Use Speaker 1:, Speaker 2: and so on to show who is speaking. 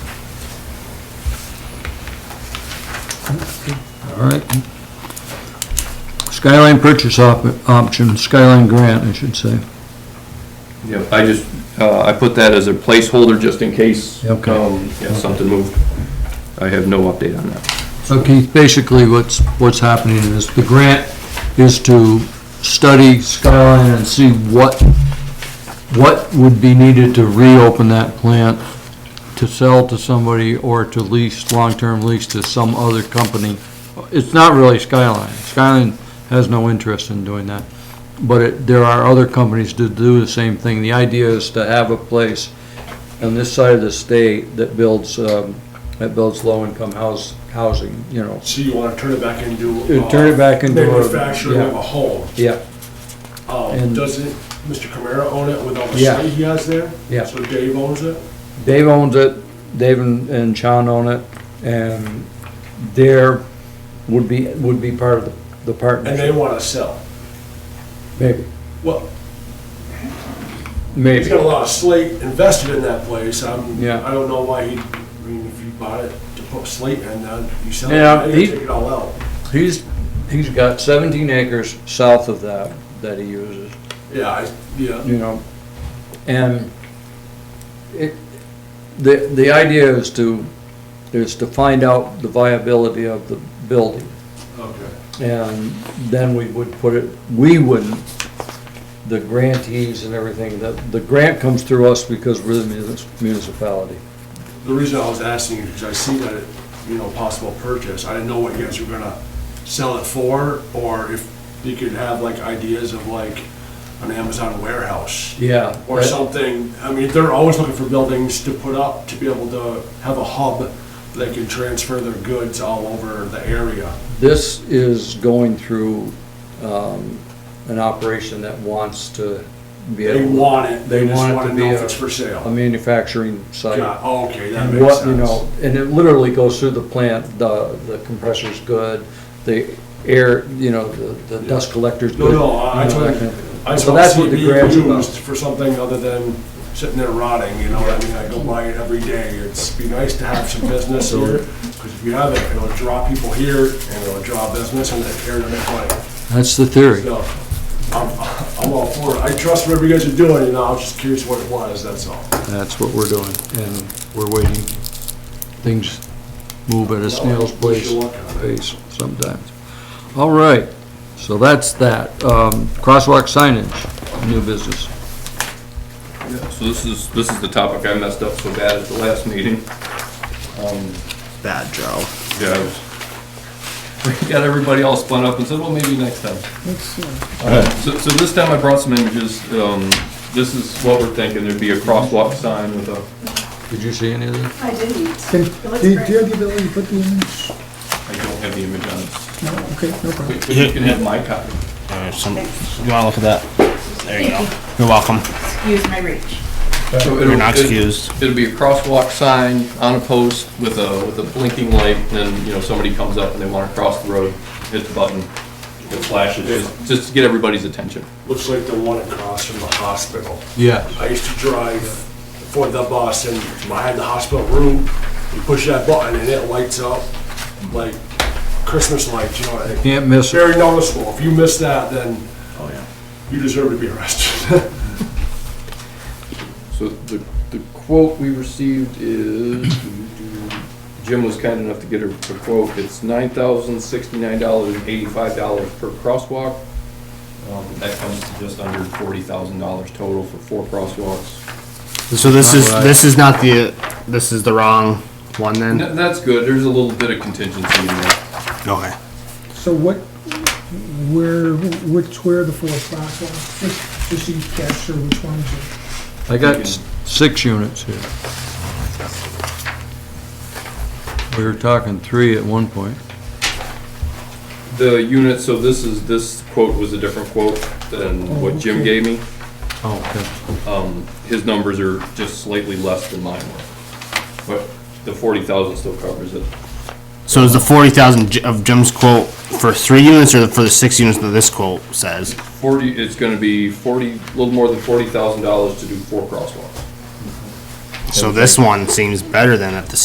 Speaker 1: All right. Skyline purchase op- option, Skyline grant, I should say.
Speaker 2: Yep, I just, uh, I put that as a placeholder just in case, um,
Speaker 1: Okay.
Speaker 2: yeah, something moved. I have no update on that.
Speaker 1: So Keith, basically what's, what's happening is the grant is to study Skyline and see what, what would be needed to reopen that plant to sell to somebody or to lease, long-term lease to some other company. It's not really Skyline. Skyline has no interest in doing that. But it, there are other companies that do the same thing. The idea is to have a place on this side of the state that builds, um, that builds low-income house, housing, you know.
Speaker 3: So you wanna turn it back into.
Speaker 1: Uh, turn it back into a-
Speaker 3: Manufacturing of
Speaker 1: yeah.
Speaker 3: a home.
Speaker 1: Yeah,
Speaker 3: Um,
Speaker 1: And-
Speaker 3: doesn't Mr. Camara own it with all the
Speaker 1: Yeah.
Speaker 3: site he has there?
Speaker 1: Yeah.
Speaker 3: So Dave owns it?
Speaker 1: Dave owns it, Dave and and Sean own it, and there would be, would be part of the- the
Speaker 3: And they
Speaker 1: partnership.
Speaker 3: wanna sell.
Speaker 1: Maybe,
Speaker 3: Well, he's
Speaker 1: maybe.
Speaker 3: got a lot of slate invested in that place. I'm,
Speaker 1: Yeah.
Speaker 3: I don't know why he, I mean, if you bought it to put slate in, then you sell it,
Speaker 1: Yeah,
Speaker 3: then you
Speaker 1: he-
Speaker 3: take it all out.
Speaker 1: He's, he's got 17 acres south of that, that he uses.
Speaker 3: Yeah, I, yeah.
Speaker 1: you know, and it, the, the idea is to, is to find out the viability of the building.
Speaker 3: Okay.
Speaker 1: And then we would put it, we wouldn't, the grantees and everything, the, the grant comes through us because we're the munis- municipality.
Speaker 3: The reason I was asking is because I see that, it, you know, possible purchase, I didn't know what you guys were gonna sell it for, or if you could have like ideas of like an Amazon warehouse
Speaker 1: Yeah.
Speaker 3: or something, I mean, they're always looking for buildings to put up, to be able to have a hub that can transfer their goods all over the area.
Speaker 1: This is going through, um, an operation that wants to be
Speaker 3: They
Speaker 1: able,
Speaker 3: want it, they
Speaker 1: They
Speaker 3: just
Speaker 1: want it
Speaker 3: wanna
Speaker 1: to be
Speaker 3: know if
Speaker 1: a-
Speaker 3: it's for
Speaker 1: a
Speaker 3: sale.
Speaker 1: manufacturing site.
Speaker 3: Yeah, okay, that
Speaker 1: And
Speaker 3: makes
Speaker 1: what, you
Speaker 3: sense.
Speaker 1: know, and it literally goes through the plant, the, the compressor's good, the air, you know, the, the dust collector's
Speaker 3: No,
Speaker 1: good.
Speaker 3: no, I I
Speaker 1: you know, that
Speaker 3: totally,
Speaker 1: kind of thing.
Speaker 3: I just
Speaker 1: So
Speaker 3: want to
Speaker 1: that's
Speaker 3: see
Speaker 1: what
Speaker 3: it
Speaker 1: the
Speaker 3: being
Speaker 1: grant's about.
Speaker 3: used for something other than sitting there rotting, you know, I mean, I go by it every day, it's, be nice to have some business here, because if you have it, it'll draw people here, and it'll draw business, and they're here to make money,
Speaker 1: That's the theory.
Speaker 3: so, I'm, I'm all for it, I trust whatever you guys are doing, you know, I was just curious what it was, that's all.
Speaker 1: That's what we're doing, and we're waiting. Things move at a snail's
Speaker 3: Well, we
Speaker 1: pace,
Speaker 3: should work on it.
Speaker 1: pace sometimes. All right, so that's that. Um, crosswalk signage, new business.
Speaker 2: So this is, this is the topic I messed up so bad at the last meeting. Um,
Speaker 4: Bad Joe.
Speaker 2: Yeah, I was, got everybody all spun up and said, well, maybe next time. Uh, So, so this time I brought some images, um, this is what we're thinking, there'd be a crosswalk sign with a,
Speaker 1: Did you see any of that?
Speaker 5: I didn't.
Speaker 6: Can,
Speaker 5: looks
Speaker 6: do you
Speaker 5: great.
Speaker 6: do you have the ability to put the image?
Speaker 2: I don't have the image on it.
Speaker 6: No, okay, no problem.
Speaker 2: But you can have my copy.
Speaker 4: Alright, some, you wanna look at that? There you go. You're welcome.
Speaker 5: Excuse my reach.
Speaker 2: So it'll-
Speaker 4: You're not
Speaker 2: it-
Speaker 4: excused.
Speaker 2: It'll be a crosswalk sign on a post with a, with a blinking light, and then, you know, somebody comes up and they wanna cross the road, hit the button, it flashes, just- just to get everybody's attention.
Speaker 3: Looks like the one across from the hospital.
Speaker 1: Yeah.
Speaker 3: I used to drive for the bus and behind the hospital room, you push that button and it lights up like Christmas lights, you know, what I mean?
Speaker 1: Can't miss
Speaker 3: it's
Speaker 1: it.
Speaker 3: very noticeable. If you miss that, then you deserve to be arrested.
Speaker 2: So the, the quote we received is, Jim was kind enough to get a, a quote, it's nine thousand sixty-nine dollars and eighty-five dollars per crosswalk. Um, that comes to just under forty thousand dollars total for four crosswalks.
Speaker 4: So this is,
Speaker 1: Alright.
Speaker 4: this is not the, this is the wrong one
Speaker 2: And
Speaker 4: then?
Speaker 2: tha- that's good, there's a little bit of contingency in there.
Speaker 4: Okay.
Speaker 6: So what, where, which, where are the four crosswalks? Just, just so you capture which ones are.
Speaker 1: I got s- six units here. We were talking three at one point.
Speaker 2: The unit, so this is, this quote was a different quote than what Jim gave me.
Speaker 1: Oh, okay.
Speaker 2: Um, his numbers are just slightly less than mine were. But the forty thousand still covers it.
Speaker 4: So is the forty thousand of Jim's quote for three units or for the six units that this quote says?
Speaker 2: Forty, it's gonna be forty, a little more than forty thousand dollars to do four crosswalks.
Speaker 4: So this one seems better than at the